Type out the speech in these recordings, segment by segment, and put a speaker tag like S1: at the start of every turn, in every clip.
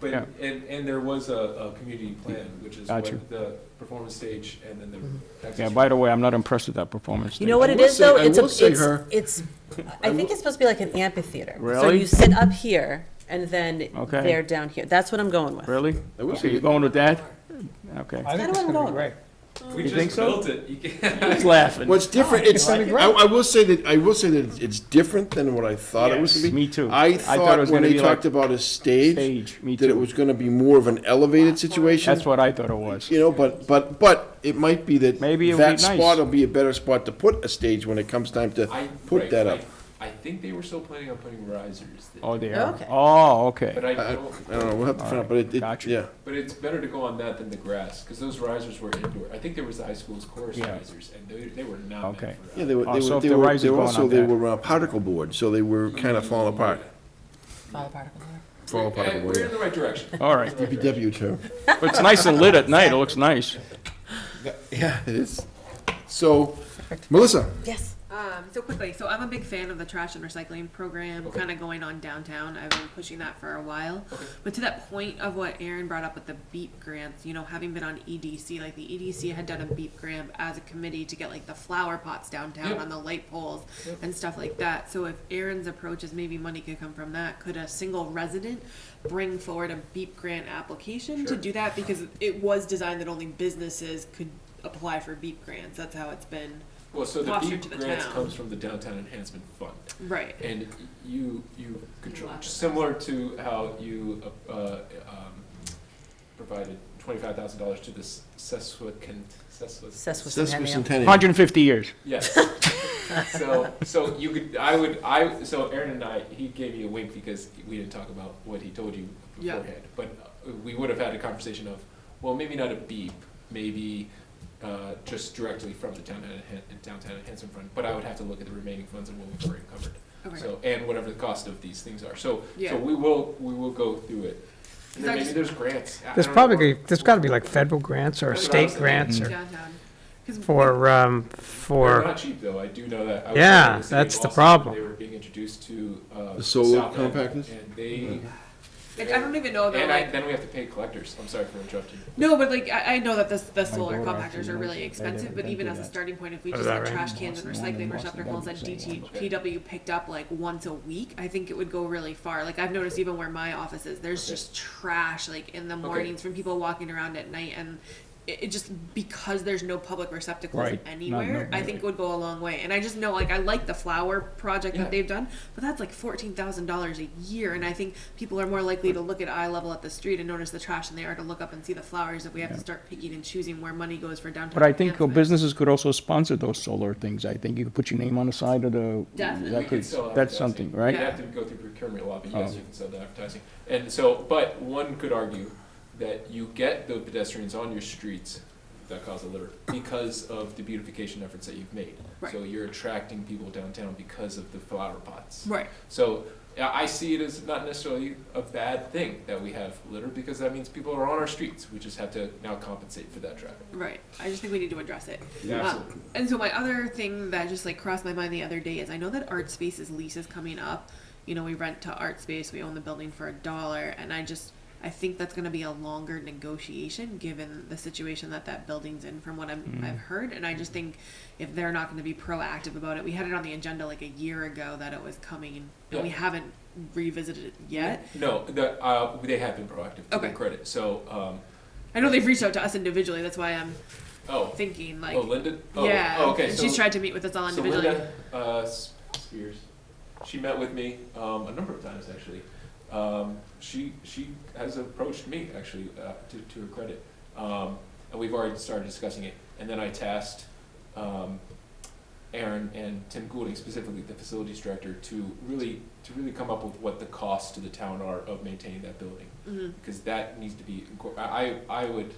S1: But,
S2: Yeah.
S1: and, and there was a, a community plan, which is
S2: Got
S1: what
S2: you.
S1: the performance stage and then
S3: Mm-hmm.
S1: the. next
S2: Yeah,
S1: stage.
S2: by the way, I'm not impressed with that performance.
S4: You know what
S3: I
S4: it
S3: will
S4: is,
S3: say-
S4: though?
S3: I
S4: It's a-
S3: will say
S4: it's-
S3: her-
S4: It's, I think it's supposed to be like an amphitheater. So
S2: Really?
S4: you sit up here, and then
S2: Okay.
S4: they're down here. That's what I'm going with.
S2: Really?
S3: I will
S2: Okay,
S3: say,
S2: you going with that? Okay.
S5: I think
S4: That's
S5: it's
S4: kinda
S5: gonna be
S4: what I'm
S5: great.
S1: We
S2: You think
S1: just
S2: so?
S1: built it, you can't.
S2: He's laughing.
S3: what's different, it's, I,
S5: like it?
S3: I will say that, I will say that it's- it's different than what I thought it was
S2: Yes,
S3: gonna be.
S2: me too. I
S3: I
S2: thought it
S3: thought
S2: was
S3: when
S2: gonna
S3: they
S2: be like
S3: talked about a stage,
S2: Stage, me
S3: that it
S2: too.
S3: was gonna be more of an elevated situation.
S2: That's what I thought it was.
S3: You know, but, but, but it might be that.
S2: Maybe it would
S3: That
S2: be nice.
S3: spot will be a better spot to put a stage when it comes time to
S1: I-
S3: put
S1: right,
S3: that
S1: I-
S3: up.
S1: I think they were still planning on putting risers, that-
S2: Oh, they are.
S4: Okay.
S2: Oh, okay.
S1: but I
S3: I I
S1: don't,
S3: don't know, we'll have to find out, but it, it,
S2: Gotcha.
S3: yeah.
S1: but it's better to go on that than the grass, because those risers were indoor. I think there was the high school's chorus
S2: Yeah.
S1: risers, and they, they were not
S2: Okay.
S1: meant for
S3: Yeah,
S1: that.
S3: they were,
S2: Oh,
S3: they
S2: so
S3: were,
S2: if
S3: they
S2: the
S3: were,
S2: riser's
S3: they were
S2: going
S3: also,
S2: on
S3: they
S2: that.
S3: were uh, particle board, so they were kind of falling apart. Fall
S1: And
S3: particle
S1: we're in
S3: board,
S1: the right direction.
S2: All right.
S3: yeah. DPW term.
S2: But it's nice and lit at night. It looks nice.
S3: Yeah, it is. So, Melissa,
S4: Yes.
S6: Um, so quickly, so I'm a big fan of the trash and recycling program kind of going on downtown. I've been pushing that for a while. But to that point of what Aaron brought up with the BEEP grants, you know, having been on EDC, like the EDC had done a BEEP grant as a committee to get like the flower pots downtown
S1: Yep.
S6: on the light poles and stuff like that. So if Aaron's approach is maybe money could come from that, could a single resident bring forward a BEEP grant application to
S1: Sure.
S6: do that? Because it was designed that only businesses could apply for BEEP grants. That's how it's been.
S1: Well, so the
S6: Foster
S1: BEEP
S6: to the
S1: grants
S6: town.
S1: comes from the Downtown Enhancement Fund.
S6: Right.
S1: And you, you control,
S6: Lots of
S1: similar to how you, uh, um, provided twenty-five thousand dollars to the Sesquican, Sesquicent,
S4: Sesquicentennial.
S3: sesquicentennial.
S2: 150 years.
S1: yes. So, so you could, I would, I, so Aaron and I, he gave me a wink because we didn't talk about what he told you
S6: Yeah.
S1: beforehand. But uh, we would have had a conversation of, well, maybe not a beep, maybe, uh, just directly from the downtown, Enhan- downtown enhancement fund, but I would have to look at the remaining funds and what we've already covered.
S6: Okay.
S1: So, and whatever the cost of these things are. So,
S6: Yeah.
S1: so we will, we will go through it. And then
S6: Is that
S1: maybe
S6: just-
S1: there's grants. I- I
S5: There's
S1: don't know.
S5: probably, there's gotta be like federal grants or
S1: That's what I was
S5: state
S1: thinking.
S5: grants or,
S6: downtown. 'Cause
S5: for, um,
S1: They're
S5: for,
S1: not cheap though, I do know that. I was
S5: Yeah,
S1: in city
S5: that's
S1: of
S5: the
S1: Boston when
S5: problem.
S1: They were being introduced to, uh.
S3: The solar
S1: South End,
S3: compactors?
S1: And they.
S6: we- like, I don't even know that
S1: And I,
S6: like
S1: then we have to pay collectors, I'm sorry for interrupting.
S6: no, but like I, I know that this, the solar
S2: daughter
S6: compactors
S2: actually
S6: are
S2: lives
S6: really
S2: in-
S6: expensive,
S2: they
S6: but even
S2: do
S6: as a
S2: that.
S6: starting point, if we
S5: Oh,
S6: just
S5: is that
S6: had
S5: right?
S6: trash cans and
S2: Boston,
S6: recycling
S2: Boston,
S6: receptacles that
S2: Boston, Boston.
S6: DTPW picked up like once a week, I think it would go really far. Like I've noticed even where my office is, there's
S1: Okay.
S6: just trash like in the
S1: Okay.
S6: mornings from people walking around at night and. It it just because there's no public receptacles
S2: Right. Not-
S6: anywhere,
S2: no-
S6: I think would go a long way. And I just know, like, I like the flower project
S1: Yeah.
S6: that they've done, but that's like fourteen thousand dollars a year, and I think people are more likely to look at eye level at the street and notice the trash than they are to look up and see the flowers. If we have to start picking and choosing where money goes for downtown.
S2: But I think
S6: enhancement.
S2: businesses could also sponsor those solar things. I think you could put your name on the side of the.
S6: Definitely.
S2: that
S1: We can
S2: could-
S1: sell
S2: That's
S1: advertising.
S2: something,
S1: You
S2: right?
S1: have to go through procurement law, but yes,
S2: Oh.
S1: you can sell the advertising. And so, but one could argue that you get the pedestrians on your streets that cause a litter because of the beautification efforts that you've made.
S6: Right.
S1: So you're attracting people downtown because of the flower pots.
S6: Right.
S1: So I I see it as not necessarily a bad thing that we have litter because that means people are on our streets. We just have to now compensate for that traffic.
S6: Right. I just think we need to address it.
S1: Yeah,
S6: Uh,
S1: absolutely.
S6: and so my other thing that just like crossed my mind the other day is I know that Art Space's lease is coming up. You know, we rent to Art Space, we own the building for a dollar, and I just I think that's going to be a longer negotiation given the situation that that building's in from what I'm,
S1: Mm.
S6: I've heard and I just think if they're not going to be proactive about it. We had it on the agenda like a year ago that it was coming and we
S1: Yeah.
S6: haven't revisited it yet.
S1: No, the, uh, they have been proactive to their
S6: Okay.
S1: credit. So, um,
S6: I know they've reached out to us individually, that's why I'm
S1: oh,
S6: thinking like
S1: oh, Linda. Oh,
S6: yeah,
S1: oh, okay.
S6: she's
S1: so,
S6: tried to meet with us all
S1: So
S6: individually.
S1: Linda uh, S- Spears, she met with me um, a number of times actually. Um, she she has approached me actually uh, to to her credit, um, and we've already started discussing it. And then I tasked um, Aaron and Tim Goulding, specifically the facilities director, to really to really come up with what the costs to the town are of maintaining that building
S6: Mhm.
S1: because that needs to be, incor- I, I I would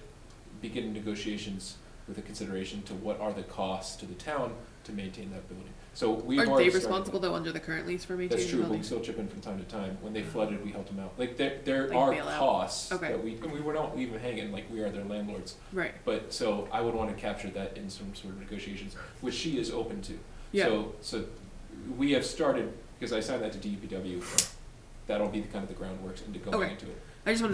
S1: begin negotiations with a consideration to what are the costs to the town to maintain that building. So we've
S6: Aren't
S1: already
S6: they
S1: started
S6: responsible
S1: that.
S6: though under the current lease for maintaining
S1: That's
S6: the
S1: true, but we
S6: building?
S1: still chip in from time to time. When they flooded, we helped them out. Like, there, there
S6: Like
S1: are
S6: bailout.
S1: costs
S6: Okay.
S1: that we, and we were not leaving hanging, like, we are their landlords.
S6: Right,
S1: But, so I would wanna capture that in some sort of negotiations, which she is open to.
S6: yeah,
S1: So, so we have started, because I signed that to DEPW, that'll be the kind of the groundwork into going
S6: Okay.
S1: into it.
S6: I just wanted